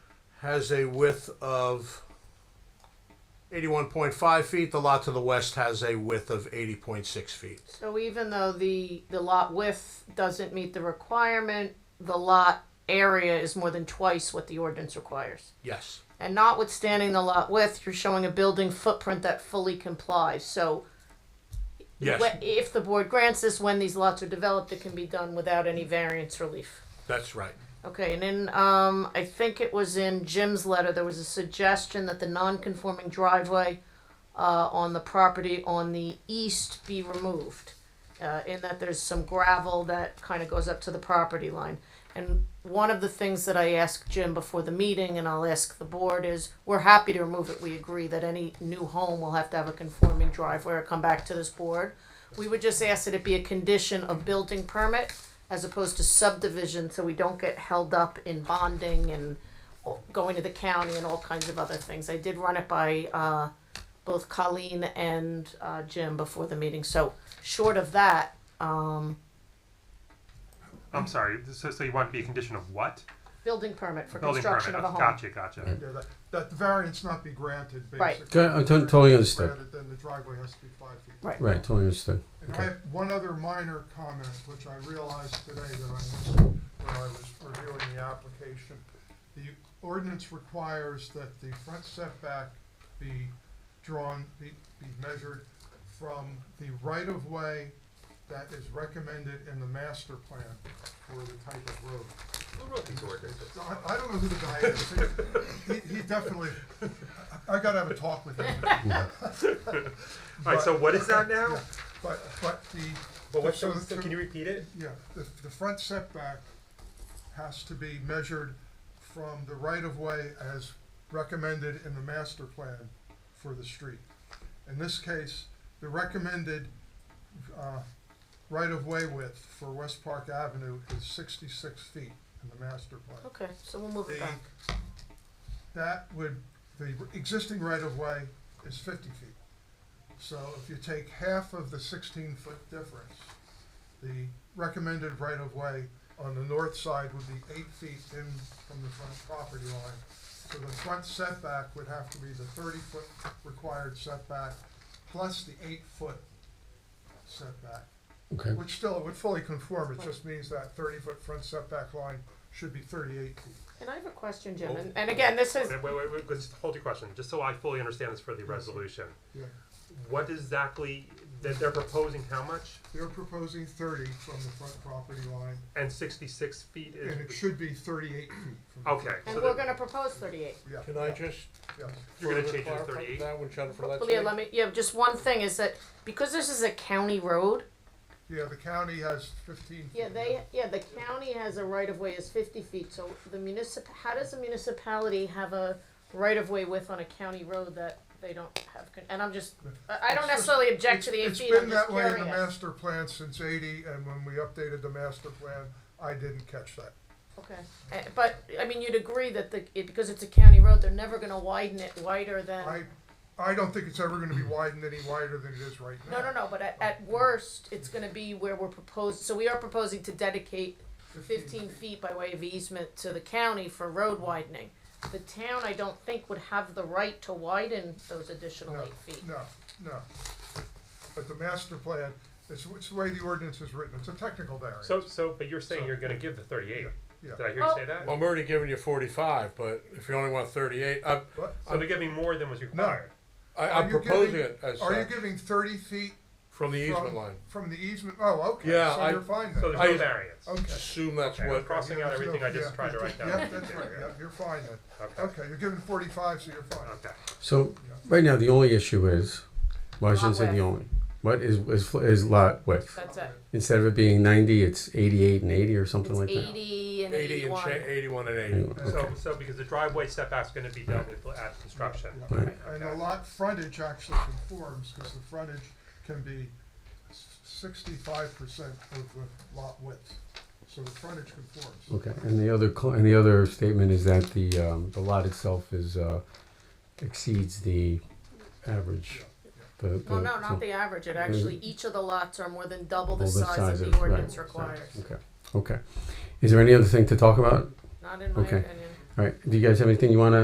has a width of 81.5 feet. The lot to the west has a width of 80.6 feet. So even though the, the lot width doesn't meet the requirement, the lot area is more than twice what the ordinance requires. Yes. And notwithstanding the lot width, you're showing a building footprint that fully complies, so. Yes. wh- If the board grants this, when these lots are developed, it can be done without any variance relief. That's right. Okay, and then, um, I think it was in Jim's letter, there was a suggestion that the non-conforming driveway, uh, on the property on the east be removed. Uh, in that there's some gravel that kinda goes up to the property line. And one of the things that I asked Jim before the meeting, and I'll ask the board, is we're happy to remove it, we agree that any new home will have to have a conforming driveway or come back to this board. We would just ask that it be a condition of building permit as opposed to subdivision, so we don't get held up in bonding and going to the county and all kinds of other things. I did run it by, uh, both Colleen and, uh, Jim before the meeting, so short of that, um, I'm sorry. So, so you want to be a condition of what? building permit for Building construction permit. of a home. Gotcha, gotcha. Yeah, that, that the variance not be granted, Right. basically. Okay, I don't- totally If it's understand. granted, Then the driveway has to be five feet. Right. Right, totally understood. And I Okay. have one other minor comment, which I realized today that I missed when I was reviewing the application. The ordinance requires that the front setback be drawn, be, be measured from the right-of-way that is recommended in the master plan for the type of road. I, I don't know who the guy is. He, he definitely, I, I gotta have a talk with him. All right. So what is that now? But, but the. But what, so so, so can you repeat it? Yeah, the, the front setback has to be measured from the right-of-way as recommended in the master plan for the street. In this case, the recommended, uh, right-of-way width for West Park Avenue is sixty-six feet in the master plan. Okay, so we'll move it The, back. that would, the existing right-of-way is fifty feet. So if you take half of the sixteen-foot difference, the recommended right-of-way on the north side would be eight feet in from the front property line. So the front setback would have to be the thirty-foot required setback plus the eight-foot setback. Okay. Which still, would fully conform, it just means that thirty-foot front setback line should be thirty-eight feet. And I have a question, Jim, and, and again, this is, Wait, wait, wait, wait, Just hold your question, just so I fully understand this for the resolution. Yeah. What exactly that they're proposing? How much? They're proposing thirty from the front property line, And 66 feet is. and it should be thirty-eight feet from. the front. Okay. and so we're that- gonna propose thirty-eight. Yeah, Can I just yes. You're further gonna change it to clarify 38? that one, John, for Well, yeah, let me, yeah, just one thing is that, because this is a county road, Yeah, the county has fifteen. Yeah, feet. they, yeah, the county has a right of way is fifty feet, so the municip, how does a municipality have a right of way width on a county road that they don't have, con- and I'm just, I, I don't It's just- necessarily object to the eight It's- feet, I'm just It's been that way in the curious. master plan since eighty, and when we updated the master plan, I didn't catch that. Okay, Eh, but, I mean, you'd agree that the, it, because it's a county road, they're never gonna widen it wider than. I, I don't think it's ever gonna be widened any wider than it is right now. No, no, no, but at, at worst, it's gonna be where we're proposed, so we are proposing to dedicate fifteen feet by way of easement to the county for road widening. The town, I don't think, would have the right to widen those additional No, eight feet. no, no. But the master plan, it's, it's the way the ordinance is written, it's a technical variance. So, so, but you're saying you're gonna give the 38. Yeah. Did I hear you say that? Well, I'm already giving you 45, but if you only want 38, I, But- So they're giving more than was required. I, Are I'm you proposing giving- it as Are you such, giving thirty feet from the easement from, line. from the easement? Oh, okay, Yeah, so I- you're fine So then. there's no I- variance. Okay. Assume that's Okay, I'm what, crossing out There's everything no- I just yeah, tried to yeah, write down. Yeah, that's right, yeah, you're fine then. Okay. Okay, you're giving forty-five, so you're fine. Okay. So right now, the only issue is, well, I shouldn't say the Lot only. What is is fl- is lot width? That's it. Instead of it being ninety, it's eighty-eight and eighty or something It's like that. eighty and 80 and cha- eighty-one. 81 and 80. Anyway, So, okay. so because the driveway setback's gonna be dealt with at construction. Yeah. Right. And the lot frontage actually conforms, because the frontage can be sixty-five percent of the lot width. So the frontage conforms. Okay. And the other cl- and the other statement is that the um, the lot itself is uh, exceeds the average. The, the, Well, no, so- not the average, it actually, each of the lots are more than double the Double the size size of of- the right, ordinance so- requires, Okay. Okay. Is there any other thing to talk about? not in my Okay. opinion. All right, do you guys have anything you wanna